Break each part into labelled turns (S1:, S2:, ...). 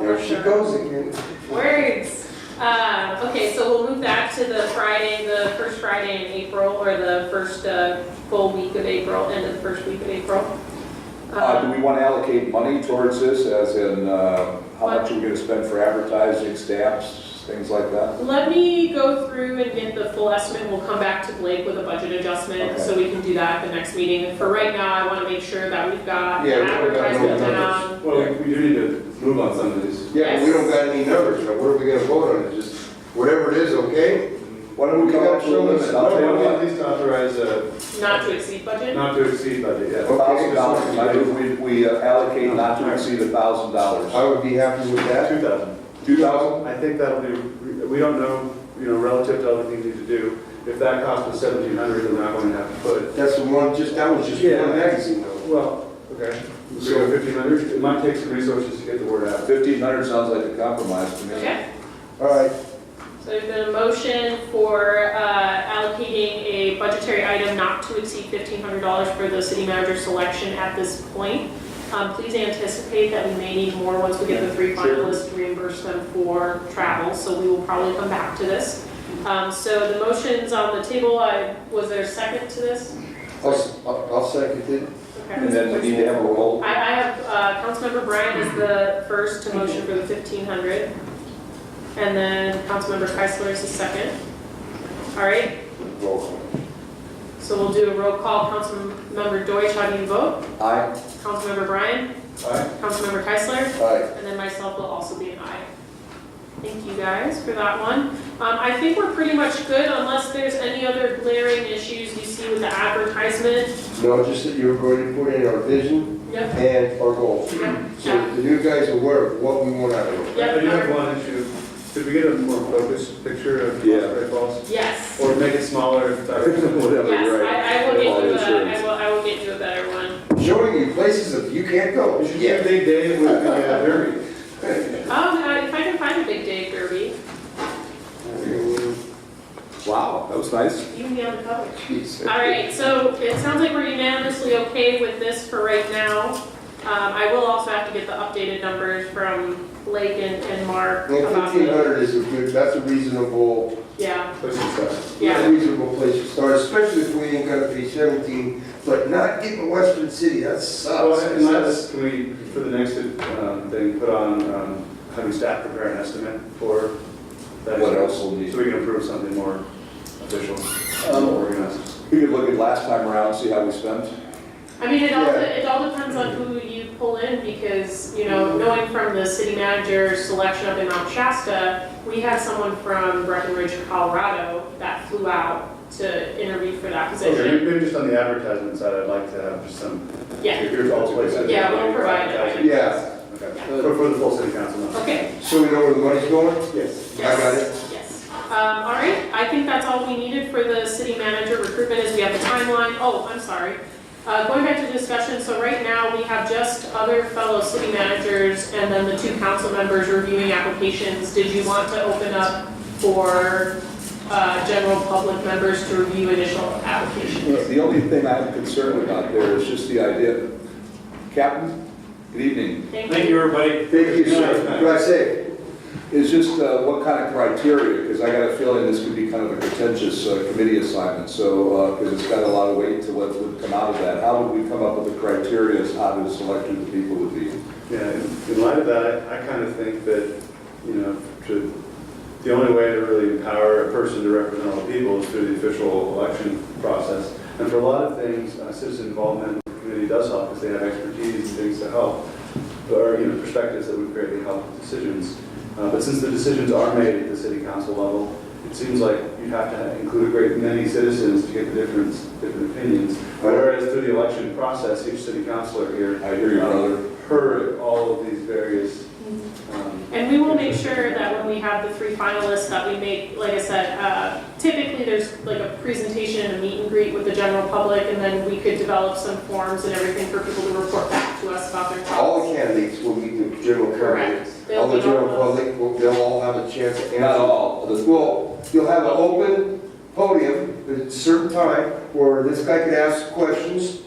S1: There she goes again.
S2: Words. Uh, okay, so we'll move back to the Friday, the first Friday in April, or the first, uh, full week of April, end of the first week of April.
S3: Uh, do
S2: Um,
S3: we want to allocate money towards this, as in, uh, how much are we going to spend for advertising, stamps, things like that?
S2: Um, Let me go through and get the full estimate, we'll come back to Blake with a budget adjustment,
S3: Okay.
S2: so we can do that at the next meeting. For right now, I wanna make sure that we've got
S1: Yeah, we don't got no
S2: advertisement
S1: numbers.
S2: down.
S4: Well, we do need to move on some of these.
S1: Yeah, but we don't got any numbers, so what are we gonna vote on? It's just, whatever it is, okay?
S3: Why don't we come up with a list? I'll tell you
S4: No, we
S3: what.
S4: at least authorize a
S2: Not to exceed budget?
S4: not to exceed budget, yeah.
S3: Thousand dollars, I think we, we uh, allocate not to exceed a thousand
S1: I
S3: dollars.
S1: would be happy with that.
S4: Two thousand.
S3: Two thousand?
S4: I think that'll be, we don't know, you know, relative to other things we need to do. If that cost was seventeen hundred, then we're not going to have to put,
S1: That's the one, just, that was just
S4: Yeah.
S1: one magazine though.
S4: well, okay. So fifteen hundred, it might take some resources to get the word out.
S3: Fifteen hundred sounds like a compromise to me.
S2: Okay,
S1: All right,
S2: so there's been a motion for, uh, allocating a budgetary item not to exceed fifteen hundred dollars for the city manager selection at this point. Um, please anticipate that we may need more once we get the three
S4: Sure.
S2: finalists to reimburse them for travel, so we will probably come back to this. Um, so the motion's on the table, I, was there a second to this?
S1: I'll, s- I'll I'll second it.
S2: Okay.
S3: And then we need to have a roll.
S2: I, I have, uh, Councilmember Bryant is the first to motion for the fifteen hundred. And then Councilmember Keisler is the second. All right,
S3: roll call.
S2: so we'll do a roll call. Councilmember Deutsch, how do you vote?
S3: Aye?
S2: Councilmember Bryant,
S4: Aye.
S2: Councilmember Keisler,
S1: Aye.
S2: and then myself will also be an aye. Thank you guys for that one. Um, I think we're pretty much good unless there's any other glaring issues you see with the advertisement.
S1: No, just that you were going to put in our vision
S2: Yep,
S1: and our goals.
S2: yep,
S1: So
S2: yep.
S1: that the new guys are aware of what we want out of them.
S2: Yeah.
S4: I do have one issue. Could we get a more focused picture of
S3: Yeah.
S4: Prospect Falls?
S2: Yes.
S4: Or make it smaller if that-
S3: Whatever, you're right.
S2: Yes, I, I will get
S3: All
S2: you a, I
S3: insurance.
S2: will, I will get you a better one.
S1: Showing you places that you can't go.
S4: We should do a big day with the uh, Derby.
S2: Um, I- if I can find a Big Dave Derby,
S3: Wow, that was nice.
S2: you can be on the cover.
S1: Jeez.
S2: All right, so it sounds like we're unanimously okay with this for right now. Um, I will also have to get the updated numbers from Blake and, and Mark
S1: Well,
S2: about
S1: fifteen
S2: the,
S1: hundred is a good, that's a reasonable,
S2: yeah,
S4: Push it aside.
S2: yeah.
S1: reasonable place to start, especially if we ain't gonna pay seventeen, but not getting Western City, that
S4: Well,
S1: sucks.
S4: and let's, can we, for the next um, thing, put on um, having staff prepare an estimate for that?
S3: What else will need?
S4: So we can approve something more official,
S2: Um,
S4: more organized.
S3: We could look at last time around, see how we spent.
S2: I mean, it all,
S1: Yeah.
S2: it all depends on who you pull in because, you know, knowing from the city manager selection up in Mount Shasta, we had someone from Breckenridge, Colorado that flew out to interview for that
S4: Okay,
S2: position.
S4: maybe just on the advertisement side, I'd like to have just some,
S2: Yeah,
S4: here's all places.
S2: Yeah, we'll provide it. Uh,
S1: Yeah,
S4: Okay, for for the full city council. no.
S2: okay.
S1: so we know where the money's going?
S4: Yes.
S1: I got it.
S2: Yes. Um, all right, I think that's all we needed for the city manager recruitment is we have the timeline. Oh, I'm sorry. Uh, going back to discussion, so right now we have just other fellow city managers and then the two council members reviewing applications. Did you want to open up for, uh, general public members to review additional applications?
S3: The only thing I'm concerned about there is just the idea. Captain, good evening.
S4: Thank you, everybody.
S1: Thank you, sir.
S4: Nice.
S1: Drive safe.
S3: is just uh, what kind of criteria, because I got a feeling this could be kind of a contentious uh, committee assignment, so, because it's got a lot of weight to what would come out of that. How would we come up with the criteria as how to select who the people would be?
S4: Yeah, in in light of that, I kind of think that, you know, to, the only way to really empower a person to represent all the people is through the official election process. And for a lot of things, uh, citizen involvement in the community does help, because they have expertise and things to help, or, you know, perspectives that would greatly help with decisions. Uh, But since the decisions are made at the city council level, it seems like you have to include a great many citizens to get the difference, different opinions. Whereas through the election process, each city councilor here. uh,
S3: I hear you, brother.
S4: Heard all of these various, um,
S2: And we will make sure that when we have the three finalists, that we make, like I said, uh, typically there's like a presentation and a meet and greet with the general public, and then we could develop some forms and everything for people to report back to us about their
S1: All
S2: thoughts.
S1: the candidates will meet the general public.
S2: Correct.
S1: All
S2: They'll
S1: the
S2: be
S1: general
S2: on those.
S1: public, will- they'll all have a chance to
S3: Not
S1: answer.
S3: all, the-
S1: Well, you'll have an open podium at a certain time where this guy could ask questions.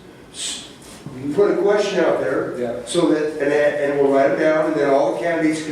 S1: You can put a question out there
S3: yeah.
S1: so that, and, and we'll write it down and then all the candidates can